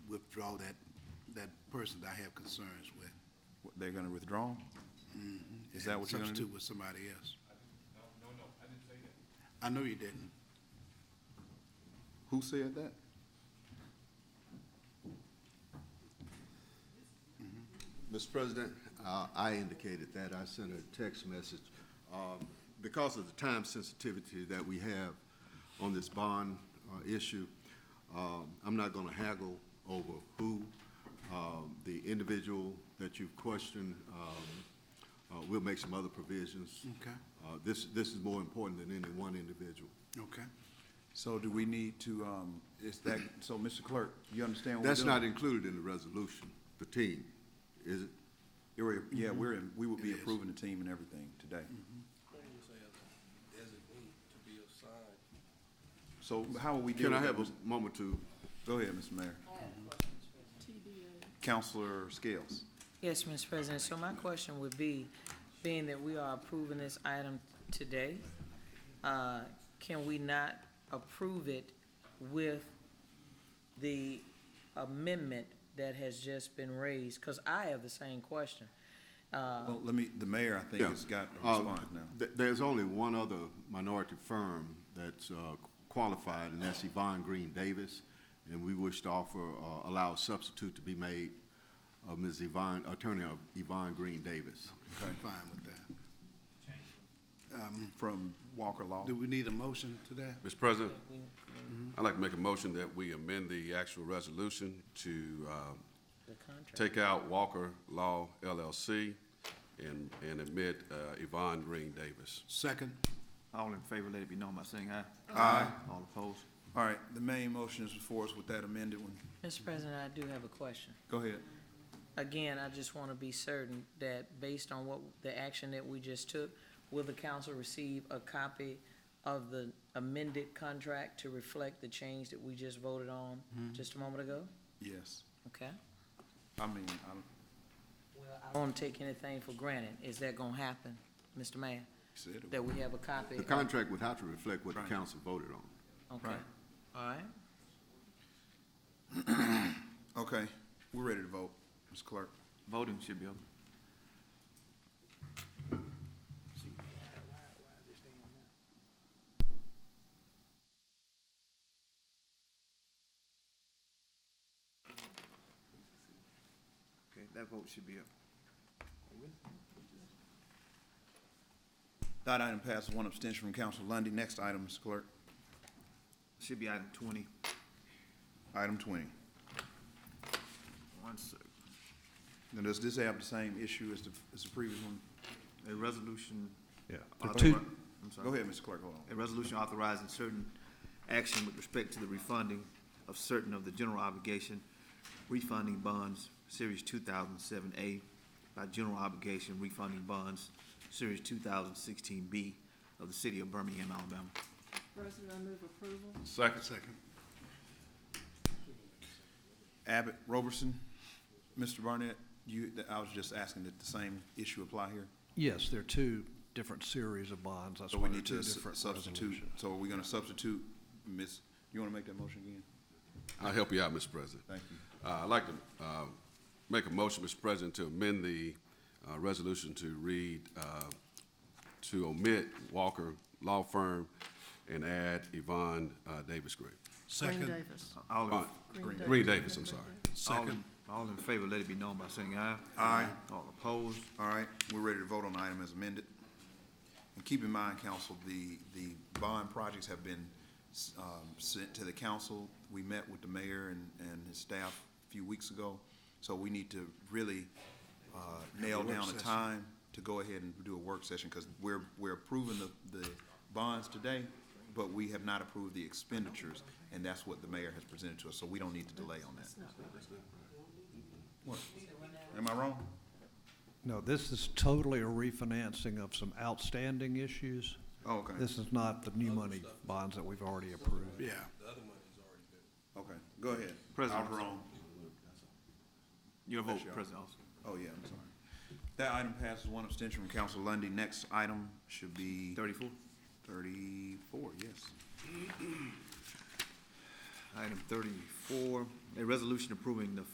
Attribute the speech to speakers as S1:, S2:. S1: withdraw that, that person that I have concerns with.
S2: What, They're gonna withdraw? Is that
S1: and
S2: what you're gonna do?
S1: Substitute with somebody else. No, no, no, I didn't say that. I know you didn't.
S2: Who said that?
S3: Mr. President, uh, I indicated that. I sent a text message. Um, Because of the time sensitivity that we have on this bond uh, issue, um, I'm not going to haggle over who um, the individual that you've questioned. um, uh, We'll make some other provisions.
S1: Okay. Oh,
S3: Uh, This, this is more important than any one individual.
S1: Okay.
S2: So do we need to, um, is that, so Mr. Clerk, you understand what we're
S3: That's
S2: doing?
S3: not included in the resolution, the team, is it?
S2: Yeah, we're- Yeah, we're, in- we will be
S1: It is.
S2: approving the team and everything today. So how will we deal
S3: Can
S2: with
S3: I
S2: that?
S3: have a
S2: Mr.
S3: moment to
S2: Go ahead, Mr. Mayor. Counselor Scales.
S4: Yes, Mr. President, so my question would be, being that we are approving this item today, uh, can we not approve it with the amendment that has just been raised? Because I have the same question.
S2: Well, let me, the mayor, I think,
S3: Yeah.
S2: has got a
S3: Uh,
S2: response now.
S3: th- There's only one other minority firm that's uh, qualified, and that's Yvonne Green Davis. And we wish to offer, uh, allow a substitute to be made of Ms. Yvonne, Attorney of Yvonne Green Davis.
S1: I'm fine with that.
S2: From Walker Law.
S1: Do we need a motion to that?
S5: Mr. President, I'd like to make a motion that we amend the actual resolution to uh,
S4: The contract,
S5: take out Walker Law LLC and, and admit uh, Yvonne Green Davis.
S1: Second?
S6: All in favor, let it be known by saying aye.
S2: Aye.
S6: All opposed?
S2: All right, the main motion is before us with that amended one.
S4: Mr. President, I do have a question.
S2: Go ahead.
S4: Again, I just want to be certain that based on what, the action that we just took, will the council receive a copy of the amended contract to reflect the change that we just voted on just a moment ago?
S2: Yes.
S4: Okay?
S2: I mean, I'm,
S4: Well, I don't take anything for granted. Is that gonna happen, Mr. Mayor?
S2: said it.
S4: That we have a copy?
S3: The
S4: of-
S3: contract would have to reflect what the
S2: Right.
S3: council voted on.
S4: Okay,
S2: Right.
S4: all right.
S2: Okay, we're ready to vote, Ms. Clerk.
S6: Voting should be open. Okay, that vote should be up.
S2: That item passes, one abstention from Council Lundy. Next item, Ms. Clerk,
S6: Should be item twenty.
S2: item twenty.
S6: One sec.
S2: Now, does this have the same issue as the, as the previous one?
S6: A resolution. Yeah. I'm sorry.
S2: Go ahead, Mr. Clerk, hold on.
S6: A resolution authorizing certain action with respect to the refunding of certain of the general obligation refunding bonds, Series two thousand seven A, by general obligation refunding bonds, Series two thousand sixteen B of the city of Birmingham, Alabama.
S7: President, I move approval.
S5: Second.
S1: Second.
S2: Abbott, Roberson, Mr. Barnett, you, I was just asking, did the same issue apply here?
S8: Yes, there are two different series of bonds. That's
S2: So
S8: why
S2: we
S8: they're
S2: need to
S8: two
S2: s-
S8: different
S2: substitute,
S8: resolutions.
S2: so are we gonna substitute, Ms., you wanna make that motion again?
S5: I'll help you out, Mr. President.
S2: Thank you.
S5: Uh, I'd like to uh, make a motion, Mr. President, to amend the uh, resolution to read, uh, to omit Walker Law Firm and add Yvonne uh, Davis Green.
S7: Green
S1: Second?
S7: Davis.
S6: All in,
S5: Uh, Green Davis, I'm sorry.
S6: all
S1: Second?
S6: in, all in favor, let it be known by saying aye.
S2: Aye.
S6: All opposed,
S2: All right, we're ready to vote on the item as amended. And keep in mind, council, the, the bond projects have been, um, sent to the council. We met with the mayor and, and his staff a few weeks ago, so we need to really, uh, nail
S1: Have a work
S2: down a
S1: session.
S2: time to go ahead and do a work session, because we're, we're approving the, the bonds today, but we have not approved the expenditures, and that's what the mayor has presented to us, so we don't need to delay on that. What? Am I wrong?
S8: No, this is totally a refinancing of some outstanding issues.
S2: Oh, okay.
S8: This is not the new money bonds that we've already approved.
S1: Yeah.
S2: Okay, go ahead.
S6: President.
S2: Alvarone.
S6: your vote,
S2: That's y'all.
S6: President Austin.
S2: Oh, yeah, I'm sorry. That item passes one abstention from Council Lundy. Next item should be
S6: Thirty-four,
S2: thirty-four, yes.
S6: item thirty-four, a resolution approving the